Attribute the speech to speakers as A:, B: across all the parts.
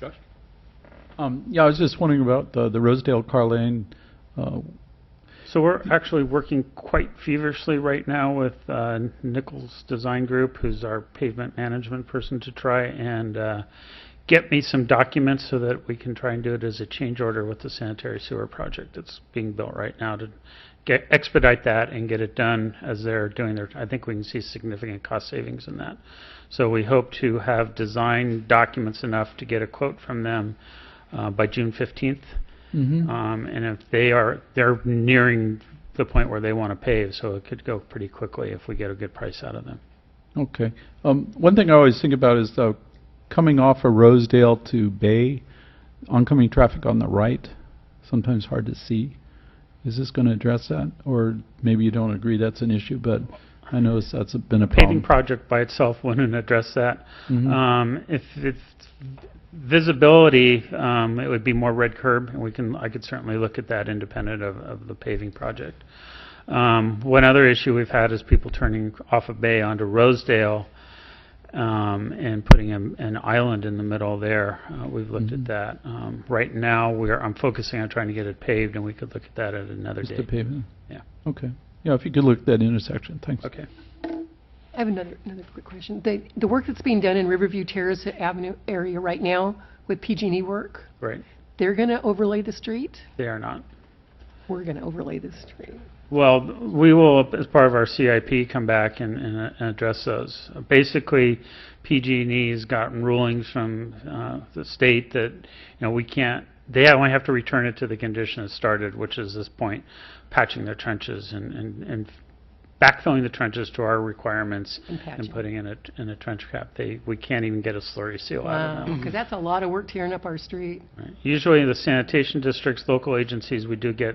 A: Josh?
B: Um, Yeah, I was just wondering about the the Rosedale car lane. uh,
C: So we're actually working quite feverishly right now with uh, Nichols Design Group, who's our pavement management person, to try and uh, get me some documents so that we can try and do it as a change order with the sanitary sewer project that's being built right now to get, expedite that and get it done as they're doing their, I think we can see significant cost savings in that. So we hope to have design documents enough to get a quote from them uh, by June 15th.
B: uh,
C: Um, and if they are, they're nearing the point where they want to pave, so it could go pretty quickly if we get a good price out of them.
B: Okay. Um, One thing I always think about is uh, coming off of Rosedale to Bay, oncoming traffic on the right, sometimes hard to see. Is this going to address that? Or maybe you don't agree that's an issue, but I notice that's a- been a
C: Paving
B: problem.
C: project by itself wouldn't address that.
B: Mhm.
C: Um, if it's visibility, um, it would be more red curb, and we can, I could certainly look at that independent of, of the paving project. Um, one other issue we've had is people turning off of Bay onto Rosedale, um, and putting an, an island in the middle there. Uh, we've looked
B: Mhm.
C: at that. Um, right now, we're, I'm focusing on trying to get it paved, and we could look at that at another
B: Just the
C: date.
B: pavement?
C: Yeah.
B: Okay. Yeah, if you could look at that intersection, thanks.
C: Okay.
D: I have another, another quick question. The, the work that's being done in Riverview Terrace Avenue area right now with PG&E E work,
C: Right.
D: they're going to overlay the street?
C: They are not.
D: We're going to overlay the street.
C: Well, we will, as part of our CIP, come back and, and uh, and address those. Basically, PG&E's E gotten rulings from uh, the state that, you know, we can't, they only have to return it to the condition it started, which is this point, patching their trenches and, and and backfilling the trenches to our requirements
D: And
C: and
D: patching.
C: putting in a, in a trench cap. They, we can't even get a slurry seal out of them.
D: Because that's a lot of work tearing up our street.
C: Right. Usually the sanitation districts, local agencies, we do get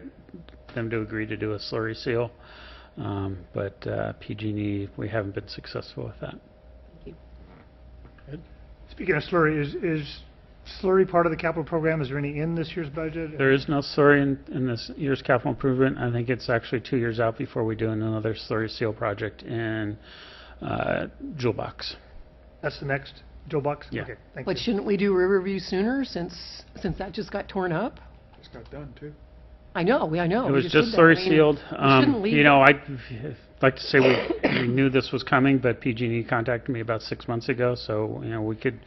C: them to agree to do a slurry seal. Um, But uh, PG&E, we haven't been successful with that.
E: Speaking of slurry, is, is slurry part of the capital program? Is there any in this year's budget?
C: There is no slurry in, in this year's capital improvement. I think it's actually two years out before we do another slurry seal project in uh, Jewel Box.
E: That's the next, Joe Bucks?
C: Yeah.
E: Okay, thank
D: But
E: you.
D: shouldn't we do Riverview sooner since, since that just got torn up?
A: It's got done, too.
D: I know, we, I know.
C: It
D: we
C: was
D: did
C: just
D: Oh, that. I
C: slurry
D: mean,
C: sealed. Um,
D: shouldn't leave
C: You know, I'd like to say we, we knew this was coming, but PG&E E contacted me about six months ago, so, you know, we could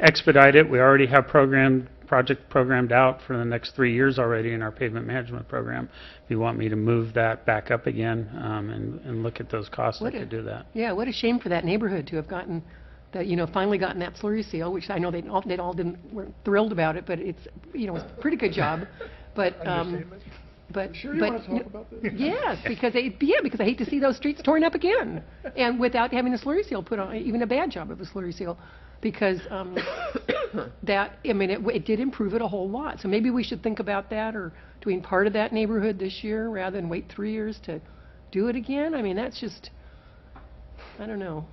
C: expedite it. We already have programmed, project programmed out for the next three years already in our pavement management program. If you want me to move that back up again um, and, and look at those costs, I
D: Would
C: could
D: it?
C: do that.
D: Yeah, what a shame for that neighborhood to have gotten, that, you know, finally gotten that slurry seal, which I know they all, they all didn't, weren't thrilled about it, but it's, you know, it's a pretty good job. But, um,
E: Understatement.
D: but.
A: Sure you
D: but-
A: want to talk about this?
D: Yes, because they, yeah, because I hate to see those streets torn up again, and without having a slurry seal put on, even a bad job of a slurry seal, because um, that, I mean, it, w- it did improve it a whole lot. So maybe we should think about that, or doing part of that neighborhood this year rather than wait three years to do it again. I mean, that's just, I don't know.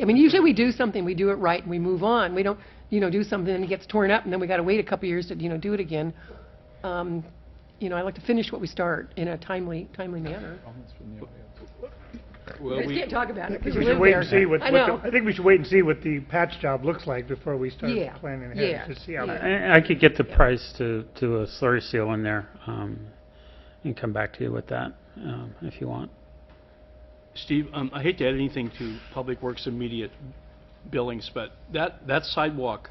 D: I mean, usually we do something, we do it right, and we move on. We don't, you know, do something and it gets torn up, and then we got to wait a couple years to, you know, do it again. Um, you know, I like to finish what we start in a timely, timely manner.
A: Well,
D: We
A: we,
D: can't talk about it
E: I think
D: because
E: we
D: you
E: should
D: live
E: wait and
D: there.
E: see what,
D: I
E: what
D: know.
E: the- I think we should wait and see what the patch job looks like before we start
D: Yeah,
E: planning
D: yeah,
E: ahead, to see how
D: yeah.
E: that
C: I I could get the price to, to a slurry seal in there um, and come back to you with that um, if you want.
A: Steve, um, I hate to add anything to Public Works immediate billings, but that, that sidewalk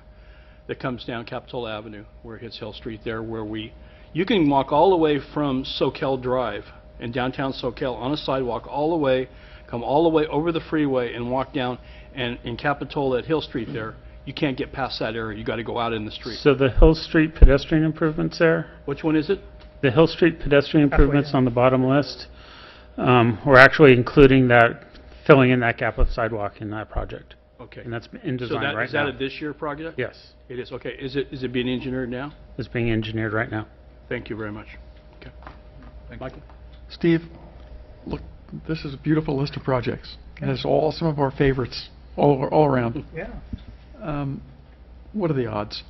A: that comes down Capitol Avenue, where it hits Hill Street there, where we, you can walk all the way from Soquel Drive in downtown Soquel on a sidewalk, all the way, come all the way over the freeway and walk down, and in Capitol at Hill Street there, you can't get past that area, you gotta go out in the street.
C: So the Hill Street pedestrian improvements there,
A: Which one is it?
C: The Hill Street pedestrian
E: Halfway
C: improvements
E: down.
C: on the bottom list, um, we're actually including that, filling in that gap of sidewalk in that project.
A: Okay.
C: And that's in
A: So
C: design
A: that,
C: right
A: is that a
C: now.
A: this year project?
C: Yes,
A: It is, okay. Is it, is it being engineered now?
C: it's being engineered right now.
A: Thank you very much. Okay. Michael?
F: Steve, look, this is a beautiful list of projects, and it's all some of our favorites, all, all around.
E: Yeah.
F: Um, What are the odds?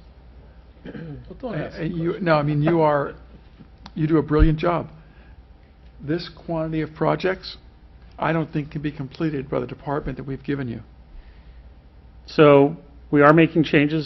F: Uh, you- No, I mean, you are, you do a brilliant job. This quantity of projects, I don't think can be completed by the department that we've given you.
C: So we are making changes